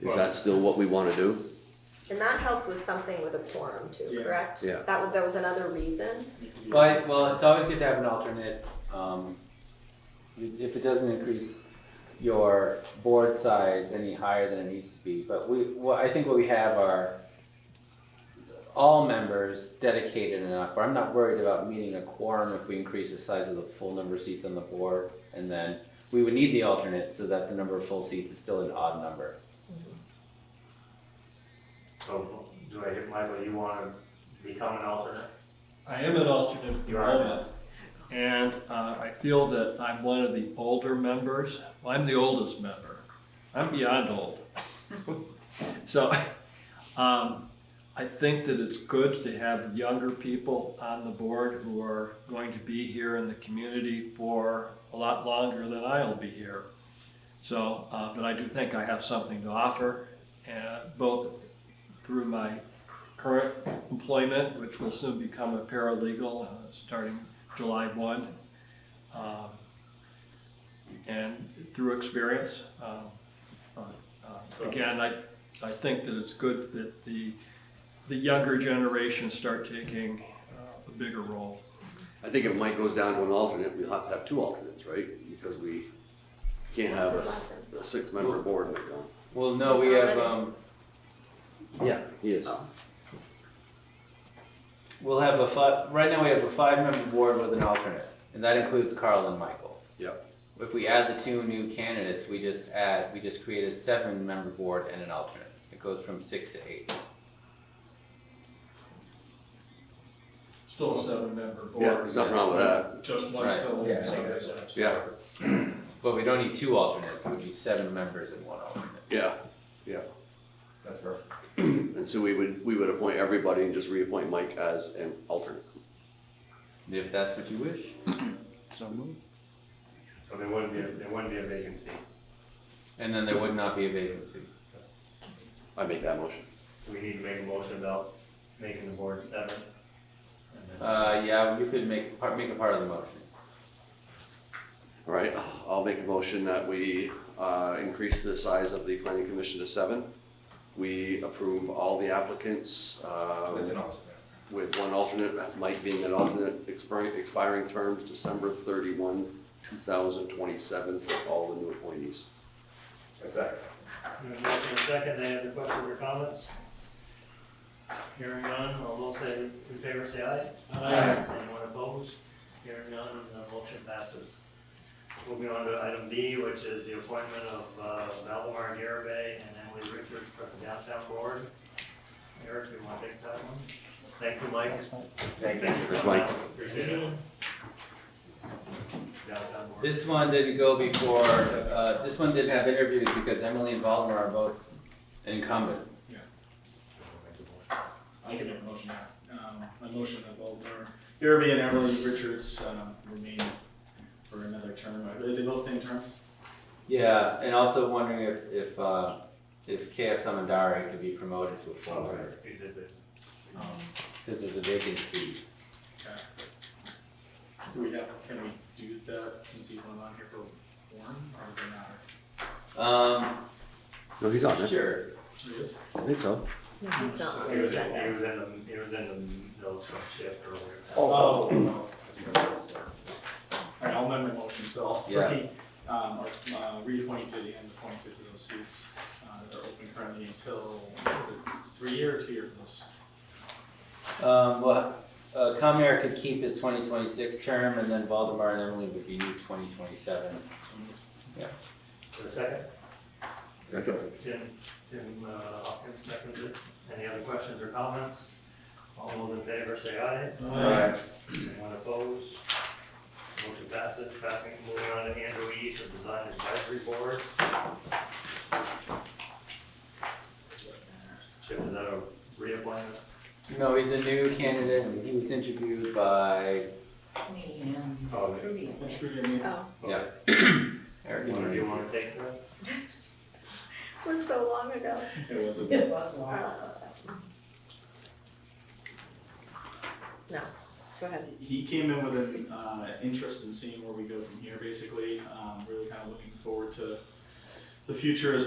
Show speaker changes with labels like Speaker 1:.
Speaker 1: Is that still what we wanna do?
Speaker 2: And that helped with something with a quorum too,
Speaker 3: Yeah.
Speaker 2: correct?
Speaker 1: Yeah.
Speaker 2: That was, that was another reason.
Speaker 3: Makes it easier.
Speaker 4: But, well, it's always good to have an alternate, um, if it doesn't increase your board size any higher than it needs to be, but we, well, I think what we have are all members dedicated enough, where I'm not worried about meeting a quorum if we increase the size of the full number of seats on the board, and then we would need the alternate so that the number of full seats is still an odd number.
Speaker 5: So, do I get, Michael, you wanna become an alternate?
Speaker 6: I am an alternate at the
Speaker 5: You are.
Speaker 6: moment, and uh, I feel that I'm one of the older members. Well, I'm the oldest member. I'm beyond old. So, um, I think that it's good to have younger people on the board who are going to be here in the community for a lot longer than I'll be here. So, uh, but I do think I have something to offer, uh, both through my current employment, which will soon become a paralegal, uh, starting July one. um, And through experience, um, uh, uh, again, I, I think that it's good that the, the younger generation start taking uh, a bigger role.
Speaker 1: I think if Mike goes down to an alternate, we'll have to have two alternates, right? Because we can't have a, s- a six-member board like that.
Speaker 4: Well, no, we have, um,
Speaker 1: Yeah, he is.
Speaker 4: we'll have a five, right now we have a five-member board with an alternate, and that includes Carl and Michael.
Speaker 1: Yep,
Speaker 4: If we add the two new candidates, we just add, we just create a seven-member board and an alternate. It goes from six to eight.
Speaker 6: Still a seven-member board.
Speaker 1: yeah, there's nothing wrong with that,
Speaker 6: Just one
Speaker 4: Right.
Speaker 6: fellow.
Speaker 3: Yeah.
Speaker 1: yeah,
Speaker 4: But we don't need two alternates, it would be seven members and one alternate.
Speaker 1: yeah.
Speaker 3: That's perfect.
Speaker 1: And so we would, we would appoint everybody and just reappoint Mike as an alternate.
Speaker 4: If that's what you wish.
Speaker 5: So there wouldn't be, a- there wouldn't be a vacancy.
Speaker 4: And then there would not be a vacancy.
Speaker 1: I make that motion.
Speaker 5: Do we need to make a motion about making the board seven? And then-
Speaker 4: Uh, yeah, you could make, part- make a part of the motion.
Speaker 1: All right, I'll make a motion that we uh, increase the size of the planning commission to seven. We approve all the applicants uh,
Speaker 3: With an alternate.
Speaker 1: with one alternate, Mike being an alternate, expiring, expiring terms December thirty-one, two thousand twenty-seven for all the new appointees.
Speaker 3: A second.
Speaker 5: We have a motion and a second, any other questions or comments? Hearing none, all those say, in favor, say aye.
Speaker 3: Aye.
Speaker 5: Anyone opposed? Hearing none, the motion passes. Moving on to item B, which is the appointment of uh, Valdemar Garabay and Emily Richards for the downtown board. Eric, you want to take that one? Thank you, Mike.
Speaker 3: Thank you.
Speaker 1: Thanks, Mike.
Speaker 5: Appreciate it. Downtown board.
Speaker 4: This one didn't go before, uh, this one didn't have interviews because Emily and Valdemar are both incumbent.
Speaker 3: I can make a motion now. Um, my motion of Alder, Irby and Emily Richards, um, remain for another term. Are they both same terms?
Speaker 4: Yeah, and also wondering if, if, uh, if KF Samandari could be promoted to a full
Speaker 5: Oh,
Speaker 4: member,
Speaker 5: you did it.
Speaker 3: Um,
Speaker 4: because there's a vacancy.
Speaker 3: okay. Do we have, can we do that since he's not on here for Warren, or does it matter?
Speaker 4: Um,
Speaker 1: No, he's on it.
Speaker 4: sure.
Speaker 3: It is?
Speaker 1: I think so.
Speaker 2: He's not on
Speaker 5: He
Speaker 2: the
Speaker 5: was in,
Speaker 2: agenda.
Speaker 5: he was in the, he was in the notes from shift earlier.
Speaker 3: Oh. Alright, I'll amend my motion, so all three, um, are, uh, reappointed and appointed to those seats, uh, that are open currently until, is it, it's three year or two year for those?
Speaker 4: Um, well, uh, Comair could keep his twenty twenty-six term, and then Valdemar and Emily would be new twenty twenty-seven.
Speaker 3: So moved.
Speaker 5: For a second?
Speaker 1: Second.
Speaker 5: Tim, Tim, uh, Hopkins seconded it. Any other questions or comments? All those in favor say aye. Anyone opposed? Motion passes. Passing, moving on to Andrew E. for Design Advisory Board. Chip, is that a reappointment?
Speaker 4: No, he's a new candidate, and he was interviewed by,
Speaker 5: Oh,
Speaker 3: Which we can make-
Speaker 2: Oh,
Speaker 4: yeah.
Speaker 5: Eric, you wanna- do you want to take that?
Speaker 2: it was so long ago.
Speaker 3: It was a.
Speaker 2: Uh, No, go ahead.
Speaker 3: He came in with an uh, interest in seeing where we go from here, basically. Um, really kind of looking forward to the future as